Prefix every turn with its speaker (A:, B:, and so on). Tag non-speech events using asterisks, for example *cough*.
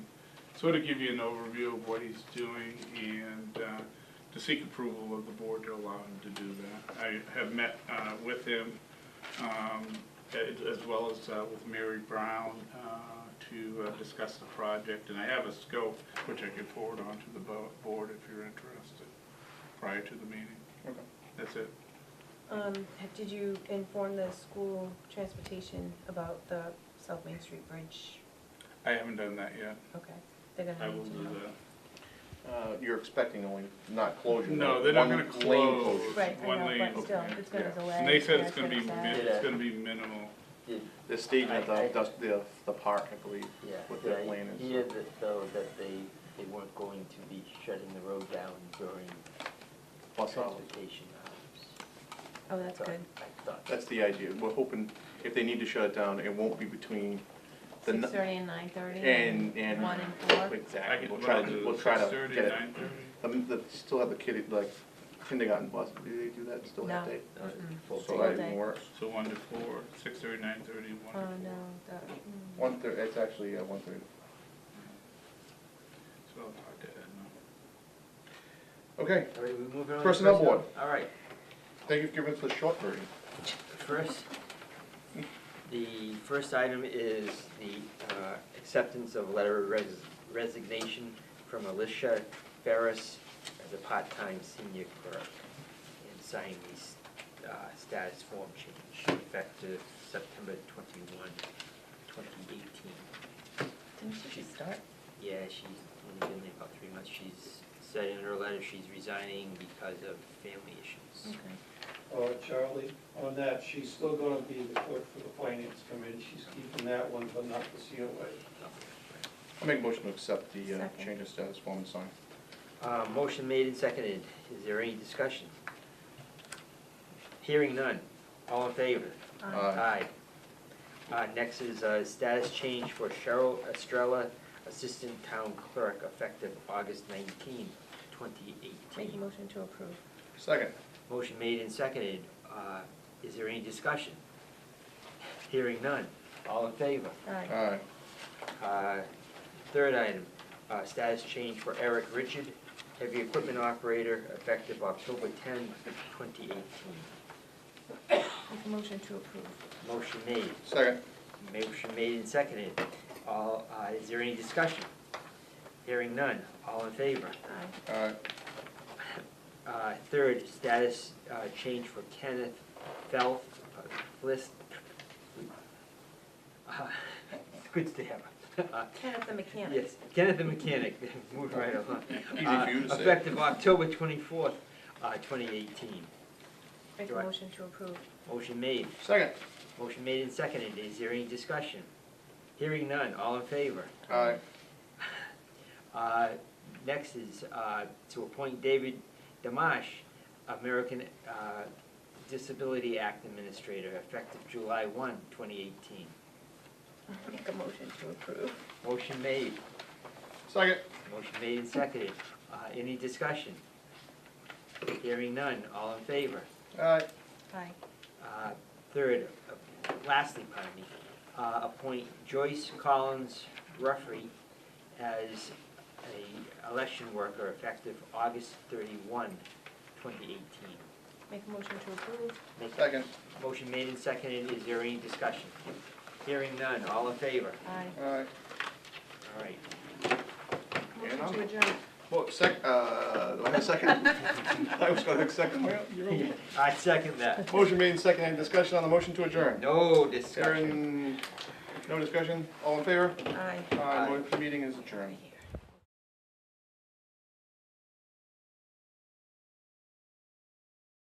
A: sort of give you an overview of what he's doing and uh, to seek approval of the board to allow him to do that. I have met uh, with him, um, a- as well as uh, with Mary Brown, uh, to uh, discuss the project. And I have a scope, which I could forward on to the bo- board if you're interested, prior to the meeting.
B: Okay.
A: That's it.
C: Um, have- did you inform the school transportation about the South Main Street Bridge?
A: I haven't done that yet.
C: Okay, they're
A: I
C: gonna
A: will
C: need to
A: do
C: know.
A: that.
B: Uh, You're expecting only, not closure.
A: No,
B: but
A: they're not
B: one
A: gonna
B: lane
A: close.
B: closure.
C: Right,
A: One
C: I know,
A: lane,
C: but still,
A: okay.
C: it's gonna
B: Yeah.
C: delay.
A: And they said
C: yeah,
A: it's gonna be,
C: sad.
A: min- it's gonna be minimal.
D: Did,
B: They're staging at
D: I- I-
B: the, dust- the, the park, I believe,
D: yeah,
B: what
D: did
B: that
D: I
B: lane is.
D: hear that though, that they, they weren't going to be shutting the road down during
B: Plus hours.
D: transportation hours?
C: Oh, that's
D: I thought-
C: good.
D: I thought.
B: That's the idea. We're hoping, if they need to shut it down, it won't be between the.
C: Six
B: n-
C: thirty and nine thirty?
B: And, and.
C: One and four?
A: I
B: Exactly.
A: could,
B: We'll
A: what
B: try
A: I'll
B: to,
A: do
B: we'll
A: is
B: try
A: six
B: to
A: thirty,
B: get it.
A: nine thirty.
B: Um, the, still have the kid, like, kindergarten bus. Do they do that still that
C: No.
B: day?
C: Mm-mm.
D: Full
B: So
C: Full
B: that
D: day.
C: day.
B: even works.
A: So one to four, six thirty, nine thirty,
C: Oh,
A: one to
C: no,
A: four.
C: that, mm.
B: One thir, it's actually, uh, one thirty.
A: So I'll talk to Ed now.
B: Okay,
D: All right, we move on. to
B: Personnel board.
D: All right,
B: thank you for giving us the short version.
D: First, the first item is the uh, acceptance of letter of res- resignation from Alicia Ferris as a part-time senior clerk and sign the uh, status form change effective September 21, 2018.
C: Didn't she just start?
D: Yeah, she's only been there about three months. She's said in her letter she's resigning because of family issues.
C: Okay.
E: Uh, Charlie, on that, she's still gonna be the clerk for the finance committee, she's keeping that one, but not the COA.
B: I make a motion to accept the uh,
C: Second.
B: change of status form and sign.
D: Uh, Motion made and seconded. Is there any discussion? Hearing none. All in favor?
C: Um,
B: Aye.
D: Uh, Next is uh, status change for Cheryl Estrella, Assistant Town Clerk, effective August 19,
C: Make a
D: 2018.
C: motion to approve.
B: Second.
D: Motion made and seconded. Uh, Is there any discussion? Hearing none. All in favor?
C: Aye.
B: Aye.
D: Uh, Third item, uh, status change for Eric Richard, heavy equipment operator, effective October 10, 2018.
C: Make a motion to approve.
D: Motion made,
B: Second.
D: motion made and seconded. All, uh, is there any discussion? Hearing none, all in favor?
C: Aye.
B: Aye.
D: Uh, third, status, uh, change for Kenneth Felth, uh, list. *laughs* uh, Good stammer. *laughs* Uh,
C: Kenneth the mechanic.
D: Yes, Kenneth the mechanic, *laughs* move right along.
B: Easy
D: Uh,
B: for you to say.
D: Effective October twenty-fourth, uh, twenty eighteen.
C: Make a
D: Right.
C: motion to approve.
D: Motion made,
B: Second.
D: motion made and seconded. Is there any discussion? Hearing none, all in favor?
B: Aye.
D: Uh, Next is uh, to appoint David Damash, American uh, Disability Act Administrator, effective July 1, 2018.
C: Make a motion to approve.
D: Motion made,
B: Second.
D: motion made and seconded. Uh, Any discussion? Hearing none, all in favor?
B: Aye.
C: Aye.
D: Uh, Third, uh, lastly, pardon me, uh, appoint Joyce Collins Ruffey as a election worker effective August 31, 2018.
C: Make a motion to approve.
D: Make that
B: Second.
D: motion made and seconded. Is there any discussion? Hearing none. All in favor?
C: Aye.
B: Aye.
D: All right.
B: And
C: Motion to
B: I'm-
C: adjourn.
B: Well, sec, uh, do I have a second? I was gonna second. Well, you're okay.
D: I second that.
B: *laughs* Motion made and second. Any discussion on the motion to adjourn?
D: No discussion.
B: Hearing, no discussion? All in favor?
C: Aye.
B: Aye.
D: Aye.
B: Motion- Meeting is adjourned.
C: Right here.